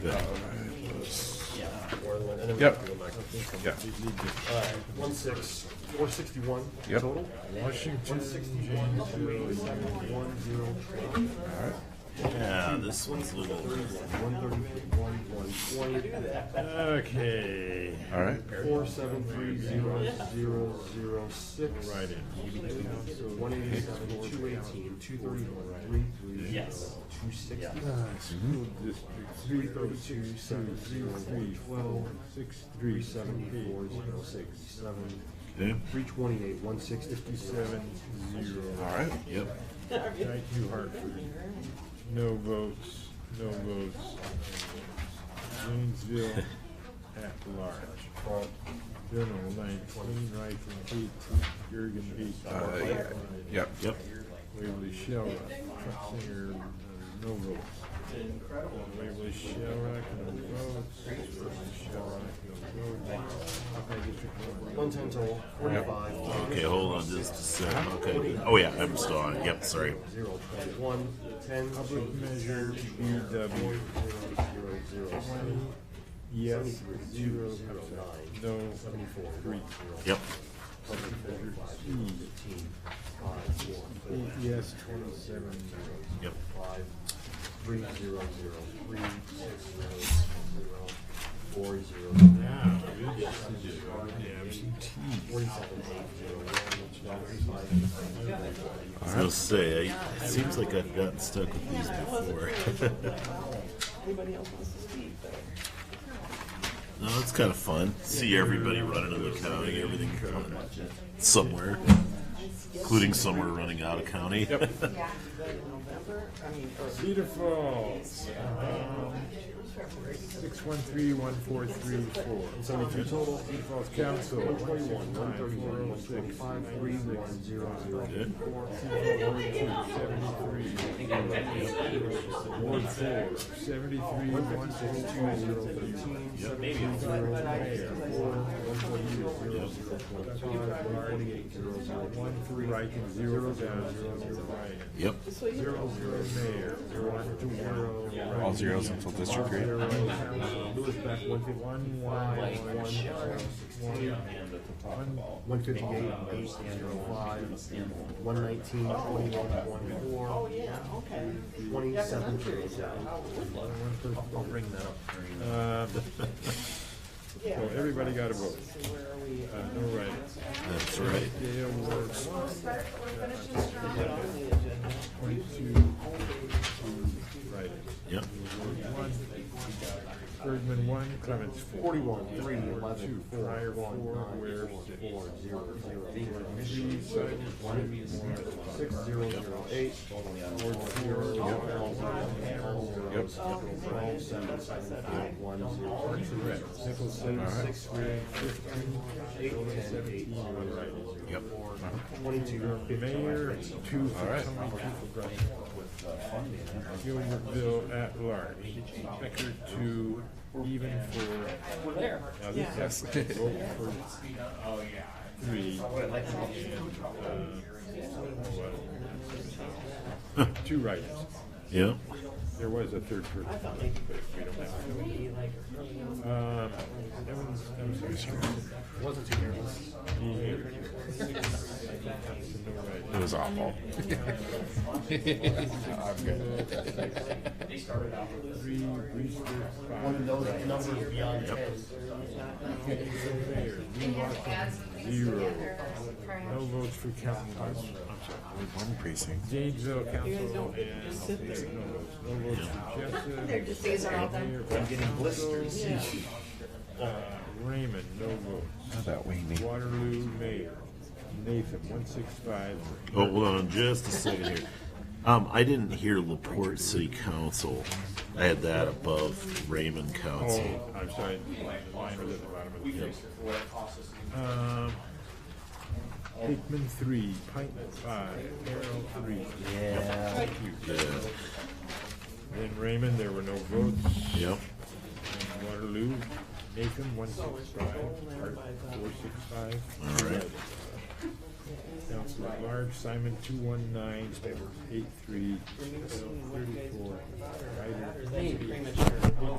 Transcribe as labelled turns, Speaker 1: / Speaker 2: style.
Speaker 1: good.
Speaker 2: Yeah.
Speaker 3: And then we
Speaker 1: Yep.
Speaker 3: have to go back.
Speaker 1: Yeah,
Speaker 3: All right, one six, four sixty-one
Speaker 1: Yep.
Speaker 3: total? One sixty-one, two eighty-seven, one zero twelve,
Speaker 2: Yeah, this one's a little.
Speaker 3: one thirty-three, one, one twenty,
Speaker 2: Okay.
Speaker 1: all right.
Speaker 3: four seven three, zero, zero, zero, six.
Speaker 2: Right in.
Speaker 3: So one eighty-seven, two eighteen, two thirty-one, three, three,
Speaker 2: Yes.
Speaker 3: two sixty,
Speaker 2: Yeah.
Speaker 3: three thirty-two, seven, zero, twelve, three seventy-four, zero, six, seven,
Speaker 1: Yeah.
Speaker 3: three twenty-eight, one sixty-seven, zero.
Speaker 1: All right. Yep.
Speaker 4: Thank you, Hartford. No votes, no votes. Jonesville at large. General nineteen, Rifle eighteen, Jurgen eight.
Speaker 1: Uh, yeah. Yep.
Speaker 2: Yep.
Speaker 4: Waverly Shellrock, Truxinger, no votes. Waverly Shellrock, no votes. Waverly Shellrock, no votes. Buckeye District, no votes.
Speaker 3: One ten total, forty-five.
Speaker 2: Okay, hold on just a second. Okay. Oh yeah, I'm still on it. Yep, sorry.
Speaker 3: Zero, twenty-one, ten.
Speaker 4: Public measure BW,
Speaker 3: Zero, zero, seven.
Speaker 4: yes,
Speaker 3: Zero, zero, nine.
Speaker 4: no,
Speaker 3: Seventy-four.
Speaker 4: three.
Speaker 2: Yep.
Speaker 3: Public measure, five, zero, fifteen, five, four, four,
Speaker 4: Eight yes, twenty-seven,
Speaker 2: Yep.
Speaker 3: five, three, zero, zero, three, six, zero, zero, four, zero.
Speaker 4: Yeah, good decision.
Speaker 3: Forty-seven, eight, zero, one, five, five, five.
Speaker 2: I was gonna say, I, it seems like I've gotten stuck with these before.
Speaker 5: Anybody else wants to speak, but.
Speaker 2: no, it's kind of fun. See everybody running in the county, everything coming somewhere, including somewhere running out of county. Yep.
Speaker 5: November, I mean,
Speaker 4: Cedar Falls, six one three one four three four.
Speaker 3: Seventy-two total,
Speaker 4: Cedar Falls Council, one
Speaker 3: twenty-one, one thirty-one, one
Speaker 4: forty-one, four oh six.
Speaker 3: twenty-five, three, one, zero, zero,
Speaker 2: Good.
Speaker 3: four,
Speaker 4: Ward four, seventy-three, one forty-two, zero thirteen. One three, right, and zero down, zero, zero, right.
Speaker 2: Yep.
Speaker 5: so you
Speaker 4: Zero, zero, mayor, one to one, right.
Speaker 1: All zeros until district three.
Speaker 4: Zero,
Speaker 1: All
Speaker 4: Lewis back, one fifty, one, one, one, one,
Speaker 3: One fifty-eight, eight, zero, five, one nineteen, twenty-one, one, four,
Speaker 5: yeah, okay.
Speaker 3: twenty-seven, zero,
Speaker 5: Oh,
Speaker 3: zero.
Speaker 5: Woodland.
Speaker 3: I'll bring that up.
Speaker 4: Uh,
Speaker 5: Yeah.
Speaker 4: so everybody got a vote.
Speaker 5: So where are we?
Speaker 4: Uh, no right.
Speaker 2: That's right.
Speaker 4: Dale Ward,
Speaker 5: On the agenda.
Speaker 4: twenty-two, right.
Speaker 2: Yep.
Speaker 4: One. Bergman, one. Clements, four.
Speaker 3: Forty-one, three,
Speaker 4: Two.
Speaker 3: eleven, four,
Speaker 4: Fryer,
Speaker 3: one,
Speaker 4: four.
Speaker 3: nine,
Speaker 4: Ware,
Speaker 3: four,
Speaker 4: six.
Speaker 3: four, zero, zero, four,
Speaker 4: Three, seven, one, one.
Speaker 3: Six zero zero eight. Four zero
Speaker 1: Yep.
Speaker 4: Nicholson, six, Ray, fifteen.
Speaker 1: Yep.
Speaker 3: Twenty-two.
Speaker 4: Mayor, two for
Speaker 1: right.
Speaker 4: Tony, two for Brush. Gilbertville at large. Becker, two, even for. Now, this has to vote for three. Uh, what? Two writers.
Speaker 2: Yep.
Speaker 4: There was a third person. but we don't have it. Um, Evans, Evans.
Speaker 3: Wasn't too careless.
Speaker 1: It was awful.
Speaker 4: Three, Brewster, five.
Speaker 3: One of those numbers beyond ten.
Speaker 4: Mayor, Lee Watson, zero. No votes for Council.
Speaker 1: One precinct.
Speaker 4: Janesville Council and no votes. No votes for Jessup. They're just, these are all them. I'm getting blisters. Raymond, no votes.
Speaker 1: That way, Nate.
Speaker 4: Waterloo Mayor, Nathan, one six five.
Speaker 2: Oh, hold on just a second here. Um, I didn't hear Laporte City Council. I had that above Raymond Council.
Speaker 4: Oh, I'm sorry. Mine was at the bottom of the page. Um, Hickman three, Pint five, Carroll three.
Speaker 2: Yeah. Yeah.
Speaker 4: In Raymond, there were no votes.
Speaker 2: Yep.
Speaker 4: In Waterloo, Nathan, one six five, Hart, four six five.
Speaker 2: All right.
Speaker 4: Council at large, Simon, two one nine, eight three, thirty-four, Ryder,
Speaker 5: Pretty much.